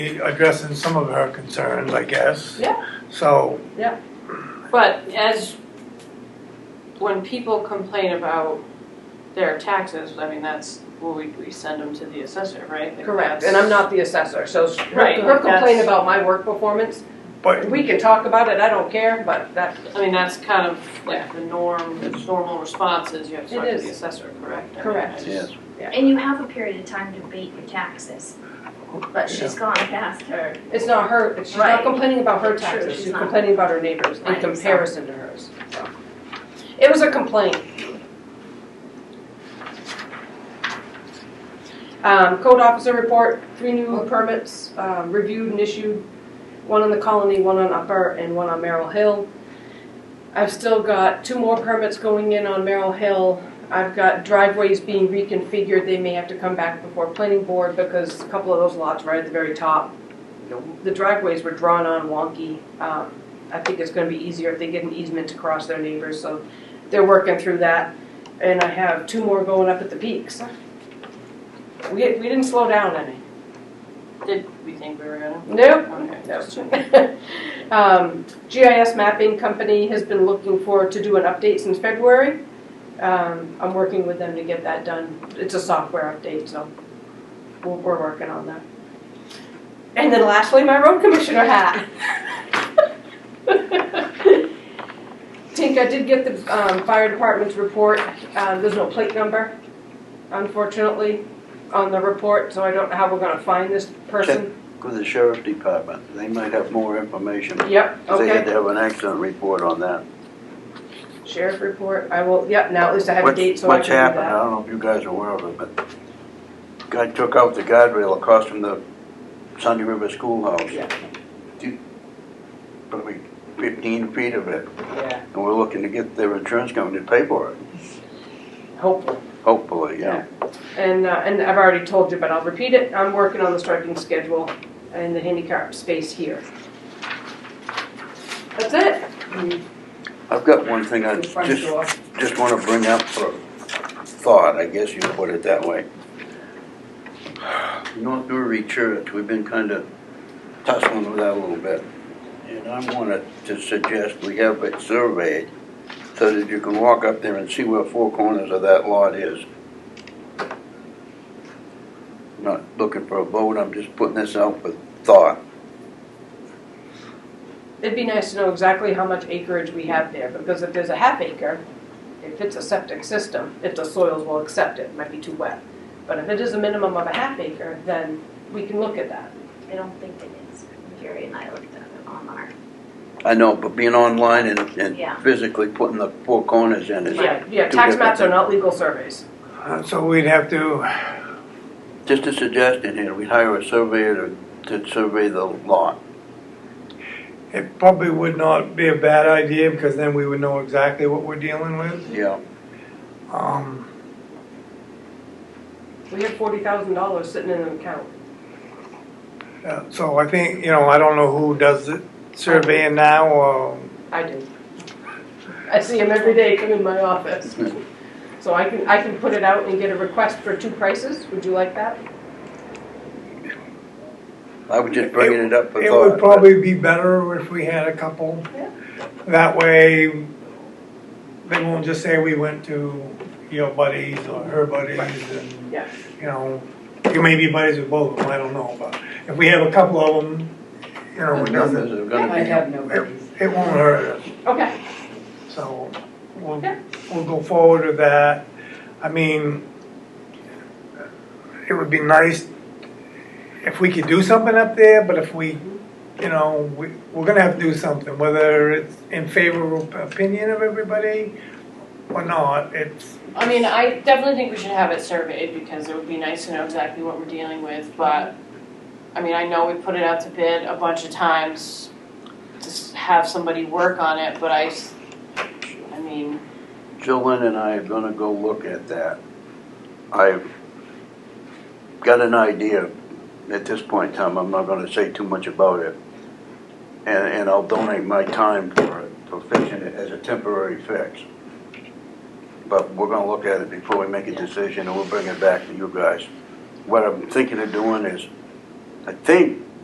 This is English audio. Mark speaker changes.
Speaker 1: addressing some of her concerns, I guess.
Speaker 2: Yeah.
Speaker 1: So,
Speaker 2: But as, when people complain about their taxes, I mean, that's, well, we, we send them to the assessor, right? Like,
Speaker 3: Correct,
Speaker 2: that's-
Speaker 3: and I'm not the assessor, so s-
Speaker 2: Right,
Speaker 3: her her complaint
Speaker 2: that's-
Speaker 3: about my work performance,
Speaker 1: but,
Speaker 3: we can talk about it, I don't care, but that,
Speaker 2: I mean, that's kind of like the norm, the normal response is you have to talk
Speaker 3: It
Speaker 2: to
Speaker 3: is.
Speaker 2: the assessor, correct? I mean,
Speaker 3: Correct.
Speaker 2: I just-
Speaker 4: Yes.
Speaker 5: And you have a period of time to abate your taxes, but she's gone past her.
Speaker 3: it's not her, she's not
Speaker 5: Right.
Speaker 3: complaining about her
Speaker 5: True,
Speaker 3: taxes,
Speaker 5: she's
Speaker 3: she's
Speaker 5: not.
Speaker 3: complaining about her neighbors in
Speaker 5: Right, so-
Speaker 3: comparison to hers, so. It was a complaint. Um, code officer report, three new permits, um, reviewed and issued, one on the Colony, one on Upper, and one on Merrill Hill. I've still got two more permits going in on Merrill Hill. I've got driveways being reconfigured, they may have to come back before planning board because a couple of those lots right at the very top, you know, the driveways were drawn on wonky. Um, I think it's gonna be easier if they get an easement to cross their neighbors, so they're working through that. And I have two more going up at the peaks. We, we didn't slow down any.
Speaker 2: Did we think we were gonna?
Speaker 3: Nope,
Speaker 2: Okay.
Speaker 3: no. Um, GIS Mapping Company has been looking for, to do an update since February. Um, I'm working with them to get that done. It's a software update, so we're, we're working on that. And then lastly, my road commissioner hat. Tink, I did get the, um, fire department's report. Uh, there's no plate number, unfortunately, on the report, so I don't know how we're gonna find this person.
Speaker 4: With the sheriff's department, they might have more information.
Speaker 3: Yep,
Speaker 4: 'Cause
Speaker 3: okay.
Speaker 4: They had to have an accident report on that.
Speaker 3: Sheriff report, I will, yep, now at least I have a
Speaker 4: What's-
Speaker 3: date, so I can
Speaker 4: What's
Speaker 3: do that.
Speaker 4: happened, I don't know if you guys are aware of it, but guy took out the guardrail across from the Sunday River Schoolhouse.
Speaker 3: Yeah.
Speaker 4: Two- Probably fifteen feet of it,
Speaker 3: Yeah,
Speaker 4: and we're looking to get their insurance company to pay for it,
Speaker 3: hopefully.
Speaker 4: hopefully, yeah.
Speaker 3: And, uh, and I've already told you, but I'll repeat it, I'm working on the striping schedule and the handicap space here. That's it.
Speaker 4: I've got one thing I just just want to bring up for thought, I guess you put it that way. North Newry Church, we've been kind of tussling with that a little bit. And I wanted to suggest we have it surveyed so that you can walk up there and see where four corners of that lot is. Not looking for a vote, I'm just putting this out with thought.
Speaker 3: It'd be nice to know exactly how much acreage we have there, because if there's a half acre, if it's a septic system, if the soils will accept it, it might be too wet. But if it is a minimum of a half acre, then we can look at that.
Speaker 5: I don't think it is. Jerry and I looked at it on our,
Speaker 4: I know, but being online and,
Speaker 5: Yeah.
Speaker 4: and physically putting the four corners in is
Speaker 3: Yeah, yeah, tax maps are not legal surveys.
Speaker 1: uh, so we'd have to,
Speaker 4: Just a suggestion here, we hire a surveyor to, to survey the lot.
Speaker 1: it probably would not be a bad idea because then we would know exactly what we're dealing with.
Speaker 4: Yeah.
Speaker 1: Um,
Speaker 3: We have forty thousand dollars sitting in an account.
Speaker 1: yeah, uh, so I think, you know, I don't know who does the surveying now or
Speaker 3: I do. I see him every day come in my office. So I can, I can put it out and get a request for two prices, would you like that?
Speaker 4: I was just bringing it up for
Speaker 1: It
Speaker 4: thought.
Speaker 1: would probably be better if we had a couple.
Speaker 3: Yeah.
Speaker 1: That way, they won't just say we went to your buddies or her buddies and,
Speaker 3: Yeah.
Speaker 1: you know, you may be buddies with both of them, I don't know, but if we have a couple of them, you know,
Speaker 4: The
Speaker 1: it
Speaker 4: numbers
Speaker 1: doesn't,
Speaker 4: are
Speaker 6: I
Speaker 4: gonna
Speaker 6: have no
Speaker 1: it
Speaker 6: buddies.
Speaker 1: it won't hurt us.
Speaker 3: Okay,
Speaker 1: So we'll,
Speaker 3: Yeah.
Speaker 1: we'll go forward with that. I mean, it would be nice if we could do something up there, but if we, you know, we, we're gonna have to do something, whether it's in favorable opinion of everybody or not, it's,
Speaker 2: I mean, I definitely think we should have it surveyed because it would be nice to know exactly what we're dealing with, but, I mean, I know we put it out to bid a bunch of times to s- have somebody work on it, but I, s- I mean,
Speaker 4: be, Jill Lynn and I are gonna go look at that. I've got an idea at this point in time, I'm not gonna say too much about it. And, and I'll donate my time for it, for fixing it as a temporary fix. But we're gonna look at it before we make a decision, and we'll bring it back to you guys. What I'm thinking of doing is, I think